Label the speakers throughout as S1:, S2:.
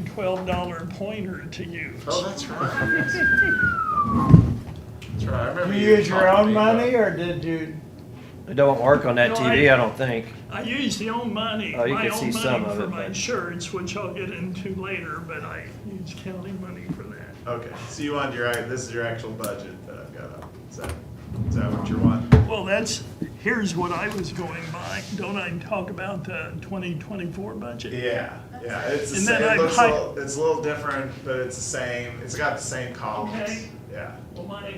S1: twelve dollar pointer to use.
S2: Oh, that's right. That's right, I remember
S3: You
S2: you
S3: use your
S2: talking
S3: own
S2: to me about-
S3: money or did you?
S4: It don't work on that
S1: No,
S4: TV,
S1: I-
S4: I don't think.
S1: I use the own money,
S4: Oh, you
S1: my
S4: can see
S1: own
S4: some
S1: money
S4: of
S1: for
S4: it,
S1: my
S4: but-
S1: insurance, which I'll get into later, but I use county money for that.
S2: Okay, so you want your, act- this is your actual budget that I've got up. Is that, is that what you're wanting?
S1: Well, that's, here's what I was going by. Don't I talk about the twenty twenty-four budget?
S2: Yeah, yeah, it's the
S1: And
S2: same,
S1: then I
S2: it looks a
S1: hi-
S2: little, it's a little different, but it's the same, it's got the same columns.
S1: Okay.
S2: Yeah.
S1: Well, my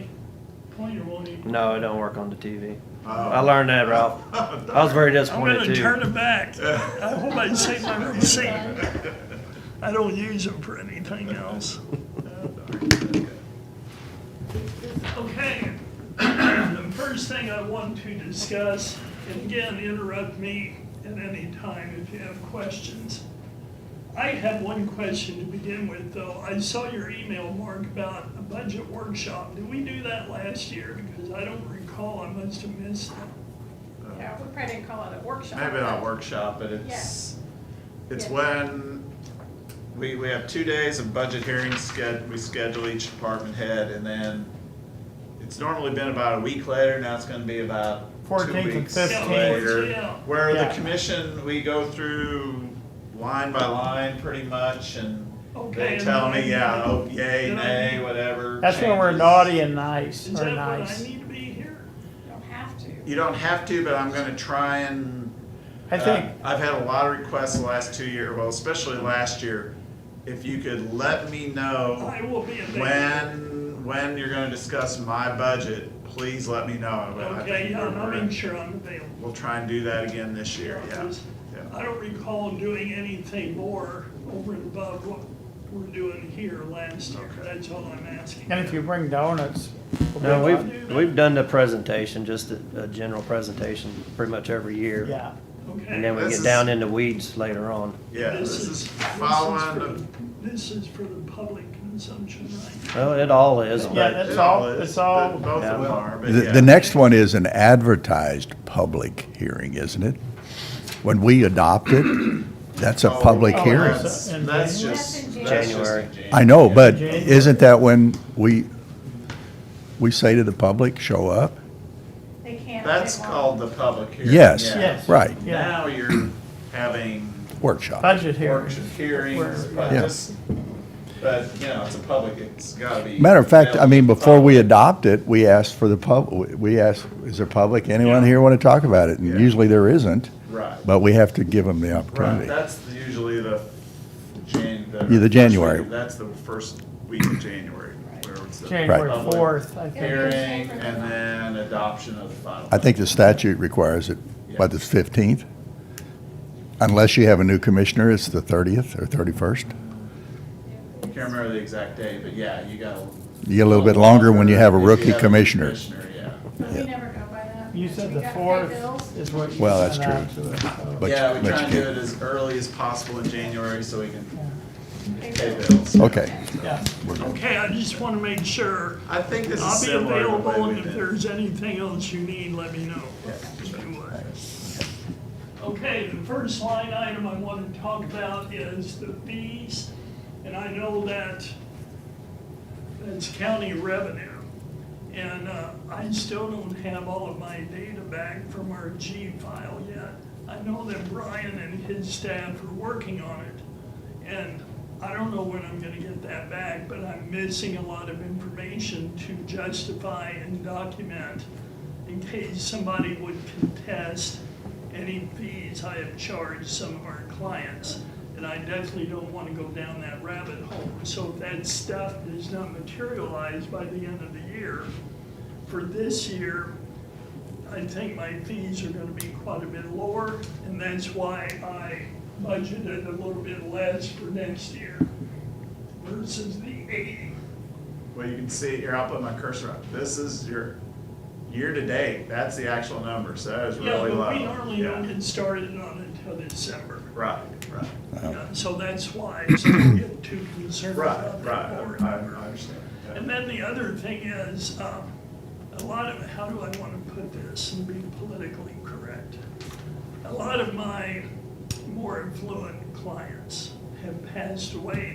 S1: pointer won't even.
S4: No, it don't work on the TV.
S2: Oh.
S4: I learned that, Ralph. I was very
S1: I'm
S4: disappointed
S1: gonna
S4: too.
S1: turn it back. I hope I save my receipt. I don't use them for anything else. Okay, the first thing I want to discuss, and again, interrupt me at any time if you have questions. I have one question to begin with, though. I saw your email, Mark, about a budget workshop. Did we do that last year? Because I don't recall, I must have missed it.
S5: Yeah, we probably didn't call it a workshop.
S2: Maybe not
S5: but-
S2: workshop, but it's, it's
S5: Yeah.
S2: when we, we have two days of budget hearings sched, we schedule each department head and then it's normally been about a week later, now it's gonna be about two
S3: 14th and
S2: weeks
S3: 15th.
S2: later.
S1: Yeah.
S2: Where the
S3: Yeah.
S2: commission, we go through line by line pretty much and
S1: Okay,
S2: they
S1: and
S2: tell
S1: then I-
S2: me, yeah, oh, yay,
S1: then I-
S2: nay, whatever.
S3: That's when we're
S2: changes.
S3: naughty and nice,
S1: Is
S3: or
S1: that when I
S3: nice.
S1: need to be here?
S5: You don't have to.
S2: You don't have to, but I'm gonna try and
S3: I
S2: Uh,
S3: think,
S2: I've had a lot of requests the last two years, well, especially last year. If you could let me know
S1: I will be available.
S2: when, when you're gonna discuss my budget, please let me know. I will- I
S1: Okay,
S2: think
S1: yeah,
S2: we're-
S1: I'll
S2: we're-
S1: make sure I'm available.
S2: We'll try and do that again this year, yeah. yeah.
S1: I don't recall doing anything more over and above what we're doing here last year.
S2: Okay.
S1: That's all I'm asking.
S3: and if you bring donuts. we'll
S4: No,
S3: be
S4: we've, we've done the presentation, just a, a general presentation, pretty much every
S3: fine.
S4: year.
S3: Yeah,
S4: And then
S1: Okay.
S4: we
S2: This
S4: get
S2: is-
S4: down into weeds later on.
S2: Yeah, this is following
S1: for
S2: the,
S1: the- This is for the public consumption, right?
S4: Well, it all is,
S3: Yeah,
S4: but
S3: that's
S2: it
S3: all-
S2: all is,
S3: it's all-
S2: but both of them are, but
S6: The,
S2: yeah.
S6: the next one is an advertised public hearing, isn't it? When we adopt it, that's a
S2: Oh,
S6: public
S2: oh,
S6: hearing.
S2: That's
S3: In
S2: that's
S3: January?
S2: just,
S5: That's in
S2: that's just in
S4: January.
S6: I know,
S2: yeah.
S6: but isn't that when we, we say to the public, show up?
S5: They can't.
S2: That's called the public hearing.
S6: Yes,
S2: yeah.
S3: yes.
S6: Right,
S3: Yeah,
S2: Now you're having
S6: workshop.
S3: budget hearings.
S2: workshop hearings,
S3: Where-
S2: but
S6: Yeah.
S2: this, but, you know, it's a public, it's gotta be.
S6: Matter of fact, I mean,
S2: available to
S6: before we
S2: the
S6: adopt it, we ask for the pub, we ask, is there public, anyone
S1: Yeah.
S6: here want to talk about it?
S2: Yeah.
S6: And usually there isn't,
S2: public. Right,
S6: but we have to give them the
S2: right,
S6: opportunity.
S2: that's the- usually the Jan.
S6: Yeah, the
S2: first
S6: January.
S2: week- That's the first week of January, where it's the.
S3: January
S2: public
S3: fourth, I think.
S2: Hearing and then adoption of the final.
S6: I think the statute requires it by the 15th. Unless you have a new commissioner, it's the 30th or 31st.
S2: I Can't remember the exact day, but yeah, you got.
S6: You get a little bit longer when you have a
S2: if
S6: rookie
S2: have a
S6: commissioner.
S2: Commissioner, yeah.
S5: But we never go by that.
S3: You said
S5: We
S3: the
S5: gotta pay
S3: fourth
S5: bills.
S3: is what you.
S6: Well, that's
S3: sent out
S6: true.
S3: to us, so.
S6: But-
S2: Yeah, we
S6: but
S2: try
S6: you
S2: and do
S6: can't-
S2: it as early as possible in January so we can
S5: Pay
S2: pay
S5: bills.
S2: bills.
S6: Okay.
S3: Yeah,
S1: Okay, I just want to make sure.
S2: I think this is
S1: I'll be
S2: similar to the way
S1: available,
S2: we
S1: and if
S2: did.
S1: there's anything else you need, let me know. if you would. Okay, the first line item I want to talk about is the fees, and I know that that's county revenue. And uh, I still don't have all of my data back from our G file yet. I know that Brian and his staff are working on it, and I don't know when I'm gonna get that back, but I'm missing a lot of information to justify and document in case somebody would contest any fees I have charged some of our clients. And I definitely don't want to go down that rabbit hole. So if that stuff does not materialize by the end of the year, for this year, I think my fees are gonna be quite a bit lower, and that's why I budgeted a little bit less for next year versus the eighty.
S2: Well, you can see here, I'll put my cursor up. This is your year-to-date, that's the actual number, so that is
S1: Yeah,
S2: really low.
S1: but we normally don't
S2: Yeah.
S1: get started on it until December.
S2: Right, right,
S1: Yeah, So that's why, so I don't get too concerned about
S2: right,
S1: that
S2: right,
S1: board
S2: I I
S1: number.
S2: understand. yeah.
S1: And then the other thing is, um, a lot of, how do I want to put this and be politically correct? A lot of my more affluent clients have passed away